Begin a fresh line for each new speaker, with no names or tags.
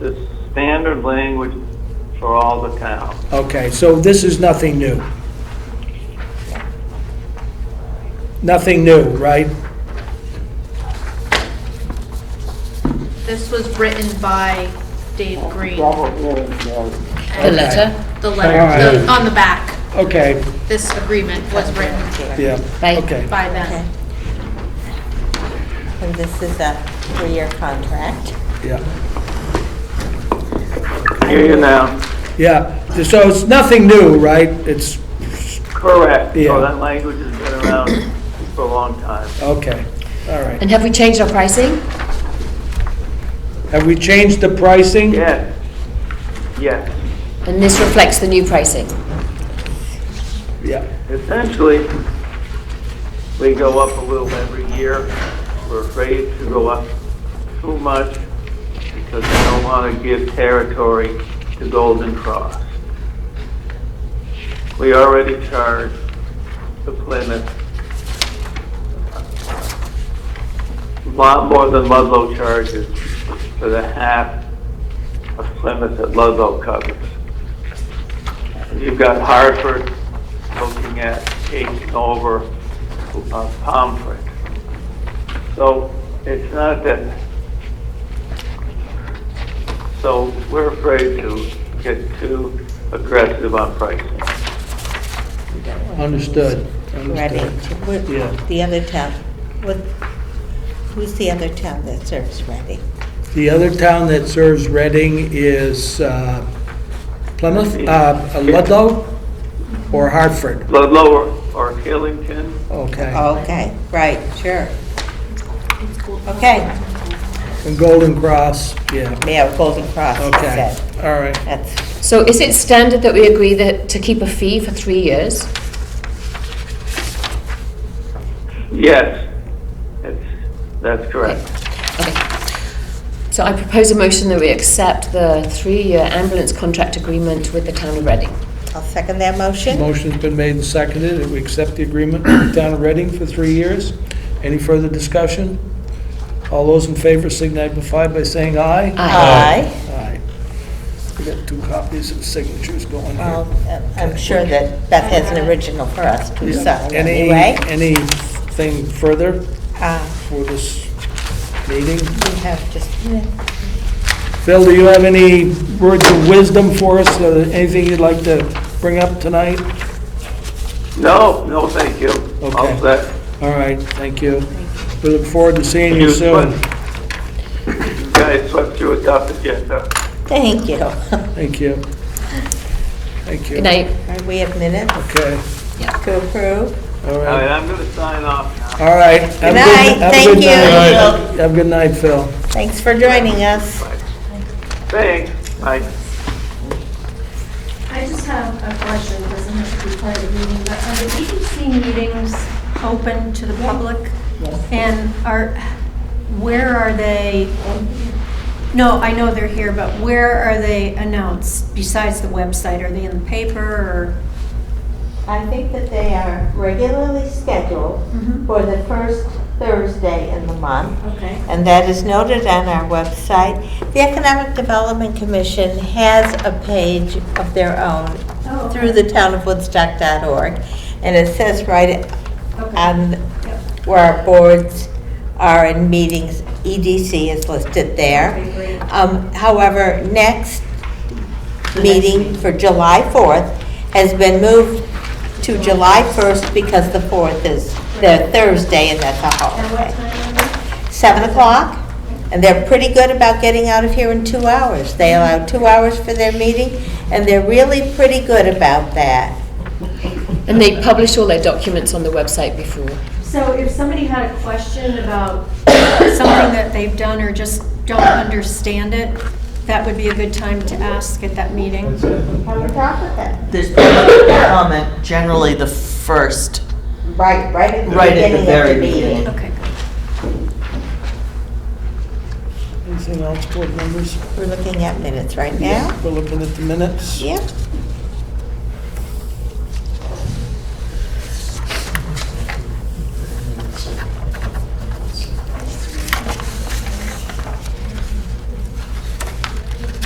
the standard language for all the towns.
Okay, so this is nothing new? Nothing new, right?
This was written by Dave Green,
The
and
letter?
the letter, the- on the back,
Okay,
this agreement was written
yeah,
Right.
okay.
by
Okay.
them.
And this is a three-year contract.
Yeah,
Hear you now.
yeah, so it's nothing new, right? It's,
Correct.
Yeah.
So that language has been around for a long time.
okay, all right.
And have we changed our pricing?
Have we changed the pricing?
Yes, yes.
And this reflects the new pricing?
Yeah,
Essentially, we go up a little every year. We're afraid to go up too much because we don't want to give territory to Golden Cross. We already charge the Plymouth a lot more than Ludlow charges for the half of Plymouth that Ludlow covers. You've got Hartford looking at taking over uh, Pomfret. So it's not that, so we're afraid to get too aggressive on pricing.
understood,
Ready
understood.
to, what-
Yeah.
the other town, what, who's the other town that serves Ready?
The other town that serves Reading is uh, Plymouth, uh, Ludlow, or Hartford?
Lo- Lower, or Killington,
Uh,
Okay,
Okay, right, sure. Okay,
and Golden Cross, yeah,
yeah, Golden Cross, it
okay,
said.
all right.
That's,
So is it standard that we agree that, to keep a fee for three years?
yes, it's, that's correct.
Okay. So I propose a motion that we accept the three-year ambulance contract agreement with the town of Reading.
I'll second that motion.
Motion's been made and seconded, that we accept the agreement with the town of Reading for three years. Any further discussion? All those in favor signify by saying aye.
Aye.
Aye. We got two copies of signatures going
Well,
here.
I'm sure that Beth has an original for us to sign
Any,
anyway.
anything further
Uh,
for this meeting?
We have just,
Phil, do you have any words of wisdom for us, Uh, anything you'd like to bring up tonight?
No, no, thank you.
Okay.
All set.
All right, thank you. We look forward to seeing you
You
soon.
swept- You guys swept through a tough agenda.
thank you. All
Thank you. Thank you.
Good night.
right, We have minutes
Okay,
to approve.
all
All right,
right.
I'm going to sign off now.
All right. Have a
Good night.
have a
Thank
good
you.
night.
Good
Have a good night, Phil.
Thanks for joining us.
Thanks, bye.
I just have a question, doesn't have to be part of the meeting, but are the EDC meetings open to the public? And are, where are they? No, I know they're here, but where are they announced besides the website? Are they in the paper or?
I think that they are regularly scheduled
Mhm.
for the first Thursday in the month,
Okay.
and that is noted on our website. The Economic Development Commission has a page of their own
Oh, okay.
through the townofwoodstock.org, and it says right
Okay.
on
Yep.
where our boards are in meetings, EDC is listed there.
Okay, great.
Um, However, next
next
meeting
meeting.
for July 4th has been moved to July 1st because the 4th is the Thursday and that's a
And
holiday.
what time are
7 o'clock, and they're pretty good about getting out of here in two hours. They allow two hours for their meeting, and they're really pretty good about that.
And they publish all their documents on the website before.
they? So if somebody had a question about something that they've done or just don't understand it, that would be a good time to ask at that meeting.
Have a talk with them.
There's public comment generally the first.
Right, right at the
Right at the
beginning of the
very
meeting.
beginning.
Okay, good.
Anything else, board members?
We're looking at minutes right now.
We're looking at the minutes.
Yep.